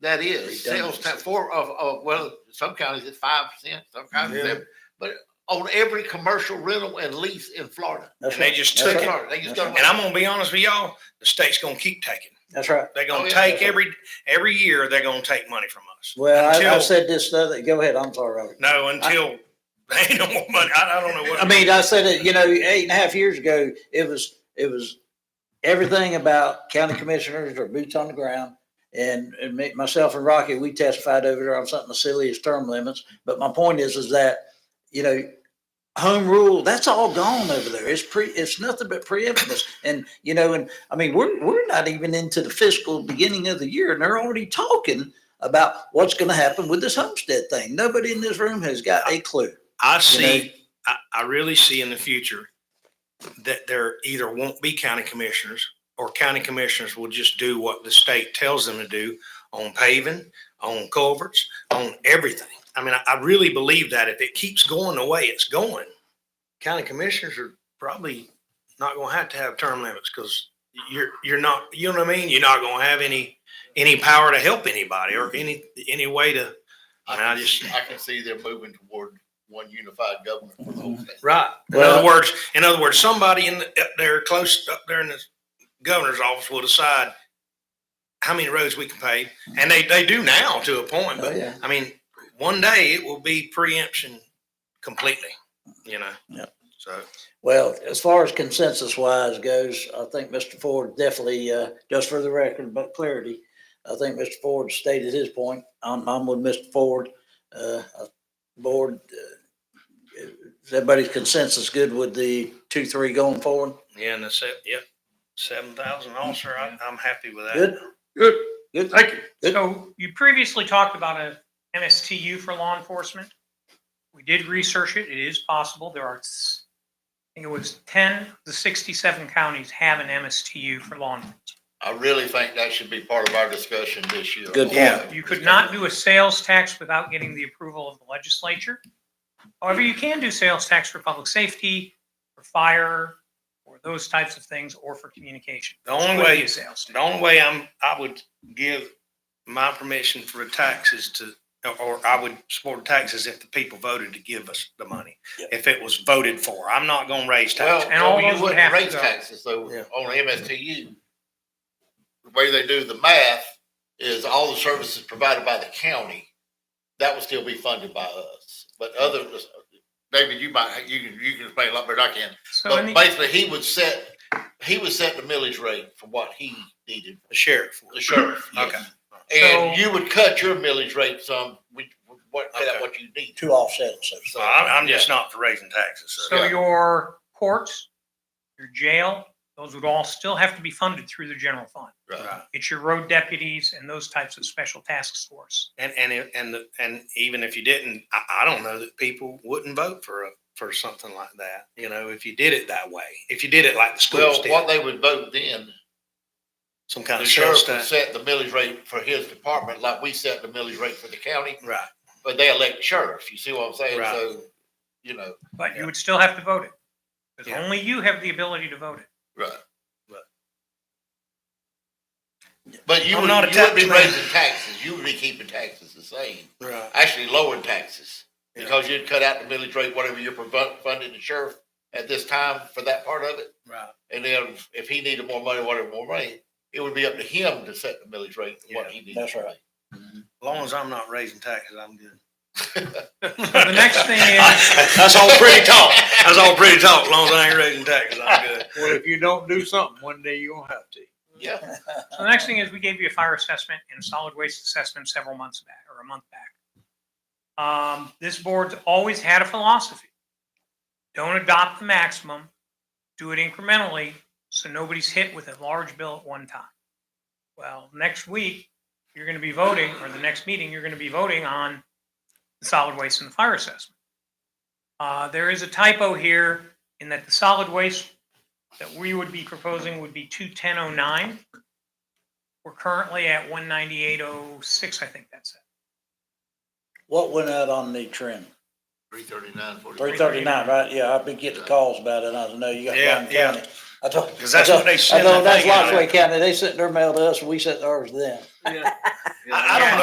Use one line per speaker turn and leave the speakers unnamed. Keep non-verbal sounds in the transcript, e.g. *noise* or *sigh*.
That is sales
Redundancy.
tax for of, of, well, some counties it's five percent, some counties,
Yeah.
it's- but on every commercial rental and lease in Florida.
That's
And they
right.
just
That's
took
right.
it.
Florida, They just
That's
don't.
right.
And I'm gonna be honest with y'all, the state's gonna keep taking.
That's right.
They're
Oh,
gonna
yeah.
take every, every year, they're gonna take money from us.
Well, I, I
Until-
said this the other, go ahead, I'm sorry, Robert.
No, until they *laughs* ain't no more money. I, I don't know what.
I mean, I said it, you know, eight and a half years ago, it was, it was everything about county commissioners or boots on the ground. And, and me, myself and Rocky, we testified over there on something as silly as term limits. But my point is, is that, you know, home rule, that's all gone over there. It's pre, it's nothing but preeminence. And, you know, and I mean, we're, we're not even into the fiscal beginning of the year and they're already talking about what's going to happen with this homestead thing. Nobody in this room has got a clue.
I see, I, I really see in the future that there either won't be county commissioners or county commissioners will just do what the state tells them to do on paving, on culverts, on everything. I mean, I, I really believe that if it keeps going the way it's going, county commissioners are probably not gonna have to have term limits because you're, you're not, you know what I mean? You're not gonna have any, any power to help anybody or any, any way to, I mean, I just.
I can see they're moving toward one unified government for the whole
Mm-hmm.
state.
Right. In
Well-
other words, in other words, somebody in the, up there close up there in the governor's office will decide how many roads we can pave, and they they do now to a point.
Oh,
But
yeah.
I mean, one day it will be preemption completely. You know.
Yeah.
So
Well, as far as consensus wise goes, I think Mr. Ford definitely, uh, just for the record, but clarity, I think Mr. Ford stated his point. I'm, I'm with Mr. Ford. Uh, uh, board, uh, is everybody's consensus good with the two, three going forward?
yeah, and the se- yep, seven thousand officer. I, I'm happy with that.
Good?
Good,
Good.
thank you.
Good.
So you previously talked about a MSTU for law enforcement. We did research it. It is possible. There are, s- I think it was 10, the 67 counties have an MSTU for law enforcement.
I really think that should be part of our discussion this year.
Good
Yeah.
You could not do a sales tax without getting the approval of the legislature. However, you can do sales tax for public safety, for fire, or those types of things, or for communication.
The only
Could
way
be
you
a sales tax.
The only way I'm, I would give my permission for the taxes to, or I would support taxes if the people voted to give us the money.
Yeah.
If it was voted for, I'm not gonna raise
Well,
taxes.
And all
no,
those
you
would
wouldn't
have to
raise
go.
taxes, so
Yeah.
on MSTU, the way they do the math is all the services provided by the county, that would still be funded by us. But other, David, you might, you can, you can explain a lot better than I can.
So in
But
the-
basically, he would set, he would set the millage rate for what he needed,
The sheriff.
the
*clears throat*
sheriff. yes.
Okay.
And
So-
you would cut your millage rate some, with with what,
Okay.
what you need.
Two offset, so.
So I'm, I'm just not for raising taxes. so-
So your courts, your jail, those would all still have to be funded through the general fund.
Right.
Right.
It's your road deputies and those types of special task force.
And, and, it- and, the- and even if you didn't, I, I don't know that people wouldn't vote for, a for something like that, you know, if you did it that way. If you did it like the schools
Well, what
did,
they would vote then
some kind
The
of sales
sheriff would
tax.
set the millage rate for his department, like we set the millage rate for the county,
Right.
but they elect sheriff, you see what I'm saying?
Right.
So, you know,
But
Yeah.
you would still have to vote it. Because
Yeah.
only you have the ability
*laughs*
to vote it.
right.
Right.
But you
I'm
would,
not a
you would be
tax man.
raising taxes, you would be keeping taxes the same,
Right.
actually lowering taxes.
Yeah.
Because you'd cut out the millage rate, whatever you're provo- funding the sheriff at this time for that part of it.
Right.
And then if he needed more money, whatever more money, it would be up to him to set the millage rate, what he needed.
That's
to
right.
As long as I'm not raising taxes, I'm good.
So the next
*laughs*
thing is,
That's all pretty talk. That's all pretty talk. As long as I ain't raising taxes, I'm good.
Well, if you don't do something, one day you're gonna have to.
pay. Yeah.
so the next thing is we gave you a fire assessment and a solid waste assessment several months back or a month back. Um, this board's always had a philosophy. Don't adopt the maximum, do it incrementally, so nobody's hit with a large bill at one time. Well, next week, you're gonna be voting, or the next meeting, you're gonna be voting on the solid waste and the fire assessment. Uh, there is a typo here in that the solid waste that we would be proposing would be two ten oh nine. We're currently at one ninety-eight oh six, I think that's it.
What went out on the trim?
Three thirty-nine, forty.
Three thirty-nine, right? Yeah, I've been getting calls about it. I don't know, you got
Yeah,
Bryan
yeah.
County. I told.
'Cause that's
I
what
told-
they
I
send,
told-
I
That's
think, out
Lafayette County. They sent their mail to us, we sent ours to them.
I, I don't know